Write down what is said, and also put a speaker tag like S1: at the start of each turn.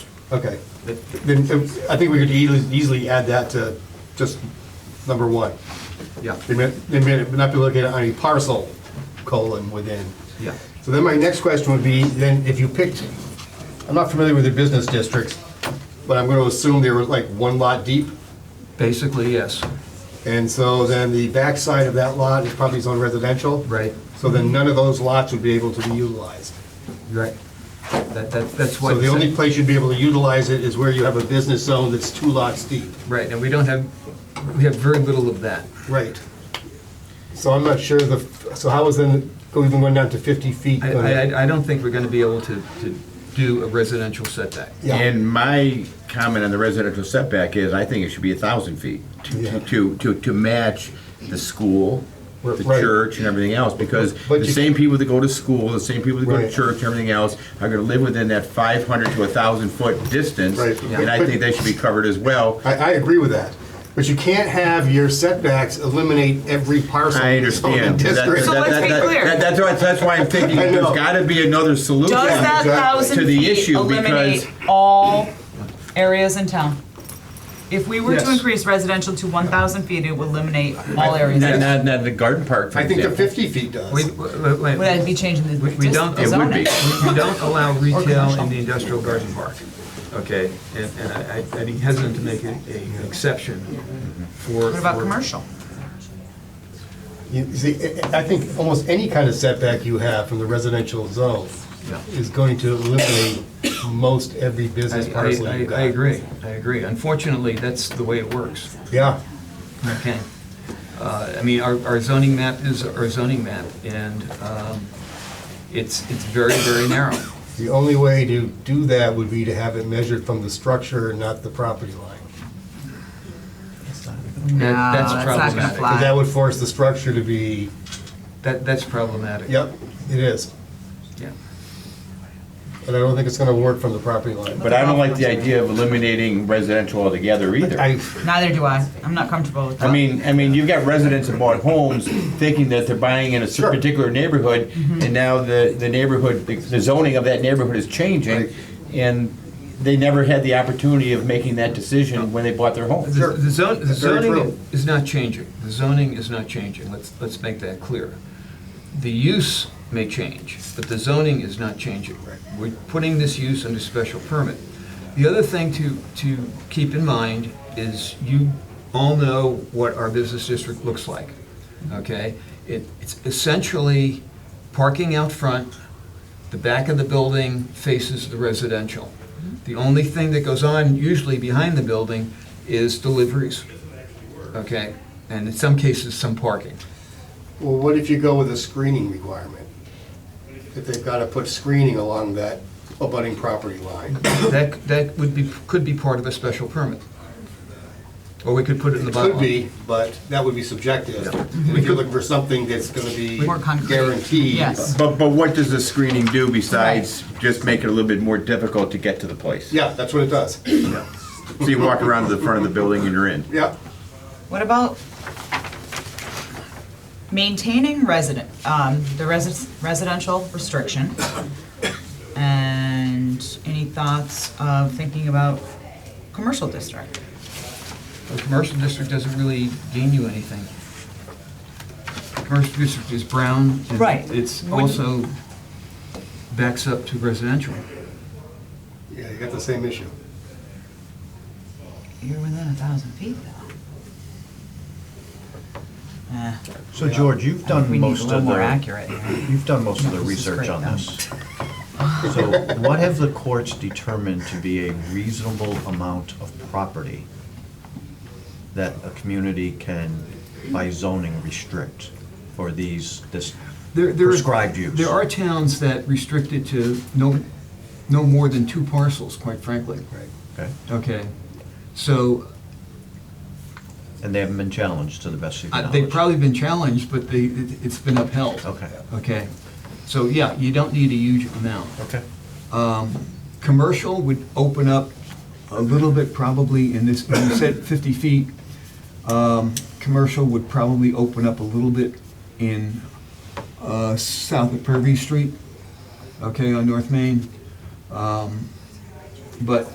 S1: Okay, then uh, I think we could easily, easily add that to just number one.
S2: Yeah,
S1: It may, it may not be located on a parcel, colon, within.
S2: yeah.
S1: So then my next question would be, then if you picked, I'm not familiar with your business districts, but I'm gonna assume they were like one lot deep,
S2: Basically, yes.
S1: and so then the backside of that lot is probably zoned residential.
S2: Right.
S1: So then none of those lots would be able to be utilized.
S2: Right. That, that, that's why.
S1: So the
S2: it's-
S1: only place you'd be able to utilize it is where you have a business zone that's two lots deep.
S2: Right, and we don't have, we have very little of that.
S1: Right. So I'm not sure the, so how is then, go even going down to 50 feet?
S2: I,
S1: gonna-
S2: I, I don't think we're gonna be able to, to do a residential setback.
S1: Yeah.
S3: And my comment on the residential setback is, I think it should be a thousand feet to-
S1: Yeah.
S3: to, to, to, to match the school, the
S1: Right.
S3: church and everything else, because
S1: But
S3: the
S1: you-
S3: same people that go to school, the same people that go to
S1: Right.
S3: church and everything else are gonna live within that five hundred to a thousand foot distance,
S1: Right.
S3: and I think they should be covered as well.
S1: I, I agree with that. But you can't have your setbacks eliminate every parcel.
S3: I
S1: in the zoning
S3: understand. That-
S1: district.
S4: So
S3: that-
S4: let's
S3: that-
S4: be
S3: that-
S4: clear.
S3: that- That's why, that's why I'm thinking,
S1: I
S3: there's
S1: know.
S3: gotta be another solution.
S4: Does that
S1: exactly.
S4: thousand
S3: To the
S4: feet
S3: issue,
S4: eliminate
S3: because-
S4: all areas in town? If we were
S2: Yes.
S4: to increase residential to one thousand feet, it would eliminate all areas.
S3: Not,
S4: Would
S3: not, not the garden park, for
S1: I think the
S3: example.
S1: 50 feet does.
S2: We, wait, wait,
S4: that
S2: we
S4: be changing the
S2: We- we
S4: dis-
S2: don't-
S4: the
S3: It would
S4: zoning?
S3: be.
S2: we don't allow retail
S4: commercial.
S2: in the industrial garden park, okay? And, and I, I'd be hesitant to make a- a exception for.
S4: What about
S2: for-
S4: commercial?
S1: You see, I I think almost any kind of setback you have from the residential zone
S2: Yeah.
S1: is going to eliminate most every
S2: I,
S1: business
S2: I,
S1: parcel
S2: I-
S1: you've got.
S2: I agree, I agree. Unfortunately, that's the way it works.
S1: Yeah.
S2: Okay. Uh, I mean, our our zoning map is our zoning map, and um, it's, it's very, very narrow.
S1: The only way to do that would be to have it measured from the structure and not the property line.
S2: No, that's
S4: that's not gonna
S2: problematic.
S4: fly.
S1: Because that would force the structure to be,
S2: That, that's problematic.
S1: yep, it is.
S2: Yeah.
S1: And I don't think it's going to work from the property line.
S3: But I don't like the idea of eliminating residential altogether either.
S1: I,
S4: Neither do I. I'm not comfortable with that.
S3: I mean, I mean, you've got residents that bought homes thinking that they're buying in a
S1: Sure. Mm-hmm.
S3: certain particular neighborhood, and now the, the neighborhood, the zoning of that neighborhood is changing, and they never had the opportunity of making that decision when they bought their home.
S2: The the zon- the
S1: That's very
S2: zoning
S1: true.
S2: is not changing. The zoning is not changing. Let's, let's make that clear. The use may change, but the zoning is not changing. We're putting this use under special permit. The other thing to, to keep in mind is you all know what our business district looks like, okay? It, it's essentially parking out front, the back of the building faces the residential.
S1: Mm-hmm.
S2: The only thing that goes on usually behind the building is deliveries, okay? And in some cases, some parking.
S1: Well, what if you go with a screening requirement? If they've got to put screening along that abutting property line.
S2: That, that would be, could be part of a special permit. Or we could put it in the
S1: It
S2: bylaw.
S1: could be, but that would be subjective. If you're looking for something that's going to be
S4: More concrete.
S1: guaranteed.
S4: Yes.
S3: But, but what does the screening do besides just make it a little bit more difficult to get to the place?
S1: Yeah, that's what it does.
S3: So you walk around to the front of the building and you're in.
S1: Yeah.
S4: What about maintaining resident, um, the resi- residential restriction? And any thoughts of thinking about commercial district?
S2: The commercial district doesn't really gain you anything. The Commercial district is brown. and
S4: Right.
S2: It's
S4: Wouldn't-
S2: also backs up to residential.
S1: Yeah, you got the same issue.
S4: You're within a thousand feet though. Eh,
S5: So George, you've
S4: we
S5: done
S4: need a
S5: most
S4: little
S5: of
S4: more
S5: the,
S4: accurate here.
S5: you've done most of the
S4: No, this is
S5: research
S4: great,
S5: on
S4: no.
S5: this. So what have the courts determined to be a reasonable amount of property that a community can, by zoning, restrict for these, this
S2: There- there are-
S5: prescribed use?
S2: There are towns that restrict it to no, no more than two parcels, quite frankly.
S5: Okay.
S2: Okay, so
S5: And they haven't been challenged to the best of your
S2: uh,
S5: knowledge?
S2: they've probably been challenged, but they, it- it's been upheld.
S5: Okay.
S2: Okay, so yeah, you don't need a huge amount.
S5: Okay.
S2: Commercial would open up a little bit probably in this, when you said 50 feet, um, commercial would probably open up a little bit in uh, south of Purvey Street, okay, on North Main. Um, But